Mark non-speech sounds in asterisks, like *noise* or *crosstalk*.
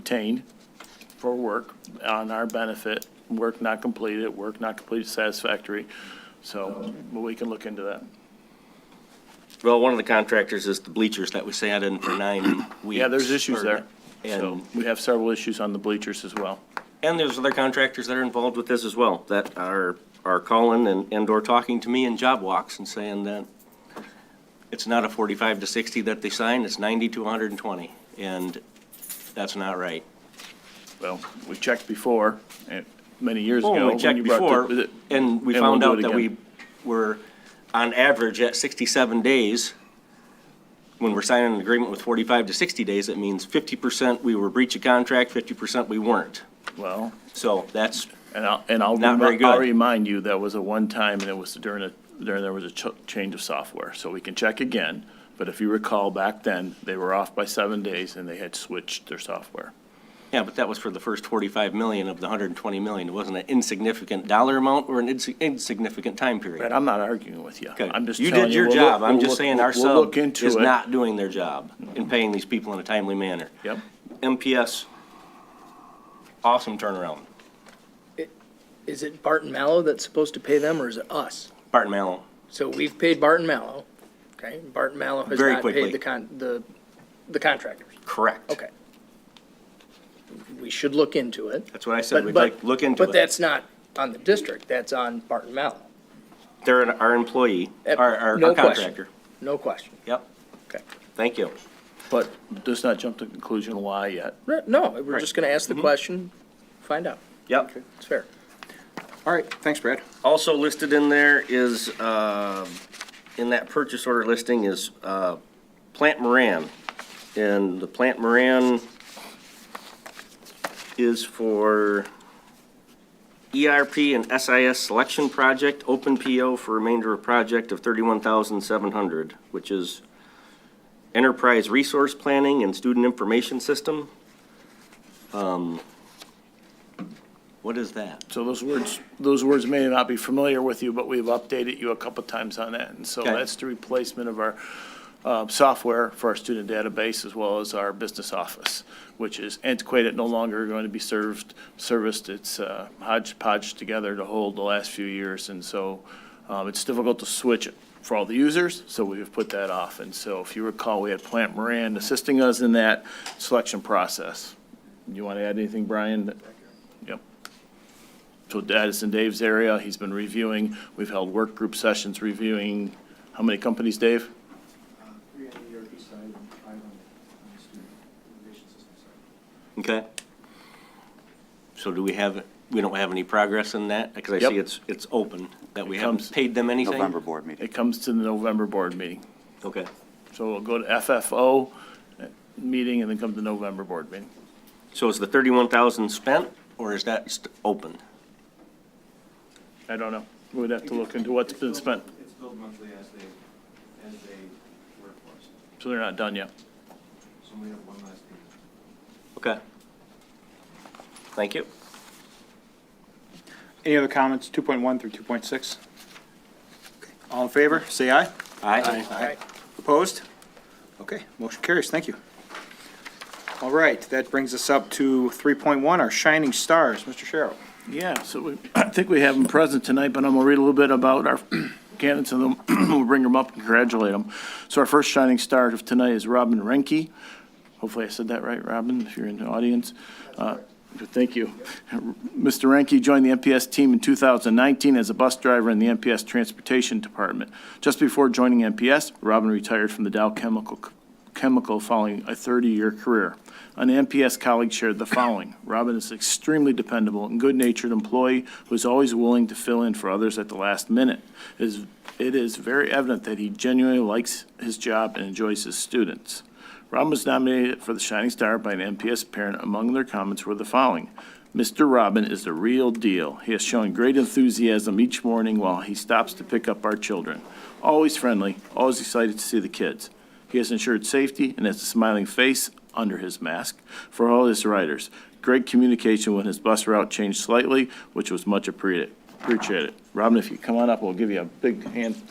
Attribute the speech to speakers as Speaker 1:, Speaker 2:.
Speaker 1: retained for work on our benefit, work not completed, work not completed satisfactory. So but we can look into that.
Speaker 2: Well, one of the contractors is the bleachers that we sat in for nine weeks.
Speaker 1: *clears throat* Yeah, there's issues there. So
Speaker 2: And,
Speaker 1: we have several issues on the bleachers as well.
Speaker 2: and there's other contractors that are involved with this as well, that are, are calling and, and or talking to me in job walks and saying that it's not a forty-five to sixty that they signed, it's ninety to hundred and twenty, and that's not right.
Speaker 1: Well, we checked before, eh, many years ago.
Speaker 2: Well, we
Speaker 1: when
Speaker 2: checked
Speaker 1: you brought
Speaker 2: Oh, before,
Speaker 1: the-
Speaker 2: and we
Speaker 1: and we'll
Speaker 2: found
Speaker 1: do
Speaker 2: out
Speaker 1: it
Speaker 2: that we
Speaker 1: again.
Speaker 2: were, on average, at sixty-seven days. When we're signing an agreement with forty-five to sixty days, it means fifty percent we were breach of contract, fifty percent we weren't.
Speaker 1: Well,
Speaker 2: So that's,
Speaker 1: and I'll, and I'll,
Speaker 2: Not very
Speaker 1: remi- I'll
Speaker 2: good.
Speaker 1: remind you, that was a one-time, and it was during a, during, there was a ch- change of software. So we can check again, but if you recall, back then, they were off by seven days, and they had switched their software.
Speaker 2: yeah, but that was for the first forty-five million of the hundred and twenty million. It wasn't an insignificant dollar amount or an insi- insignificant time
Speaker 1: Brad,
Speaker 2: period.
Speaker 1: I'm not arguing with you.
Speaker 2: Okay,
Speaker 1: I'm just
Speaker 2: you
Speaker 1: telling
Speaker 2: did
Speaker 1: you.
Speaker 2: your
Speaker 1: we'll look-
Speaker 2: job. I'm
Speaker 1: we'll
Speaker 2: just
Speaker 1: look-
Speaker 2: saying
Speaker 1: we'll-
Speaker 2: our
Speaker 1: We'll
Speaker 2: sub
Speaker 1: look into
Speaker 2: is
Speaker 1: it.
Speaker 2: not doing their job in paying these people in a timely manner.
Speaker 1: Yep,
Speaker 2: MPS, awesome turnaround.
Speaker 3: Is it Barton Mallow that's supposed to pay them, or is it us?
Speaker 2: Barton Mallow.
Speaker 3: So we've paid Barton Mallow, okay? Barton Mallow has
Speaker 2: Very
Speaker 3: not
Speaker 2: quickly.
Speaker 3: paid the con, the, the contractors.
Speaker 2: Correct.
Speaker 3: Okay. We should look into it.
Speaker 2: That's what I said,
Speaker 3: But-
Speaker 2: we'd
Speaker 3: but-
Speaker 2: like, look into
Speaker 3: But
Speaker 2: it.
Speaker 3: that's not on the district, that's on Barton Mallow,
Speaker 2: They're an- our employee,
Speaker 3: Uh,
Speaker 2: our, our- our
Speaker 3: no question.
Speaker 2: contractor.
Speaker 3: no question.
Speaker 2: Yep,
Speaker 3: Okay.
Speaker 2: thank you.
Speaker 1: but let's not jump to the conclusion why yet.
Speaker 3: Right, No, we're just gonna
Speaker 2: Mm-hmm.
Speaker 3: ask the question, find out.
Speaker 2: Yep.
Speaker 3: It's fair.
Speaker 4: All right, thanks, Brad.
Speaker 2: Also listed in there is, um, in that purchase order listing is uh, Plant Moran. And the Plant Moran is for ERP and SIS selection project, open PO for remainder of project of 31700 which is enterprise resource planning and student information system. Um, What is that?
Speaker 1: So those words, those words may not be familiar with you, but we've updated you a couple times on that. And so
Speaker 2: Okay.
Speaker 1: that's the replacement of our uh, software for our student database as well as our business office, which is antiquated, no longer going to be served, serviced. It's uh, hodgepodge together to hold the last few years. And so um, it's difficult to switch for all the users, so we have put that off. And so if you recall, we had Plant Moran assisting us in that selection process. You want to add anything, Brian? Yep. So that is in Dave's area. He's been reviewing. We've held work group sessions reviewing, how many companies, Dave?
Speaker 5: Three on the ERP side and five on the- on the student information system side.
Speaker 2: Okay. So do we have, we don't have any progress in that? Because I
Speaker 1: Yep.
Speaker 2: see it's, it's open, that we
Speaker 1: comes-
Speaker 2: haven't paid them anything?
Speaker 6: November board meeting.
Speaker 1: It comes to the November board meeting.
Speaker 2: Okay.
Speaker 1: So we'll go to FFO uh, meeting and then come to November board meeting.
Speaker 2: So is the 31,000 spent, or is that st- open?
Speaker 1: I don't know. We'd have to look into what's been spent,
Speaker 5: It's billed monthly as they, as they work for us.
Speaker 1: so they're not done yet.
Speaker 5: So we have one last payment.
Speaker 2: Okay. Thank you.
Speaker 4: Any other comments, 2.1 through 2.6? All in favor, say aye.
Speaker 2: Aye.
Speaker 3: Alright.
Speaker 4: Opposed? Okay, motion carries, thank you. All right, that brings us up to 3.1, our shining stars, Mr. Sherrill.
Speaker 1: Yeah, so we, *clears throat* I think we have them present tonight, but I'm gonna read a little bit about our *clears throat* candidates and then *clears throat* we'll bring them up and congratulate them. So our first shining star of tonight is Robin Renke. Hopefully I said that right, Robin, if you're in the audience. Uh, Thank you. Mr. Renke joined the MPS team in 2019 as a bus driver in the MPS Transportation Department. Just before joining MPS, Robin retired from the Dow Chemical chemical following a 30-year career. An MPS colleague shared the following. Robin is an extremely dependable and good-natured employee who is always willing to fill in for others at the last minute. It is- It is very evident that he genuinely likes his job and enjoys his students. Robin was nominated for the Shining Star by an MPS parent. Among their comments were the following. Mr. Robin is the real deal. He has shown great enthusiasm each morning while he stops to pick up our children. Always friendly, always excited to see the kids. He has ensured safety and has a smiling face under his mask for all his riders. Great communication when his bus route changed slightly, which was much appreciated. Appreciate it. Robin, if you come on up, we'll give you a big hand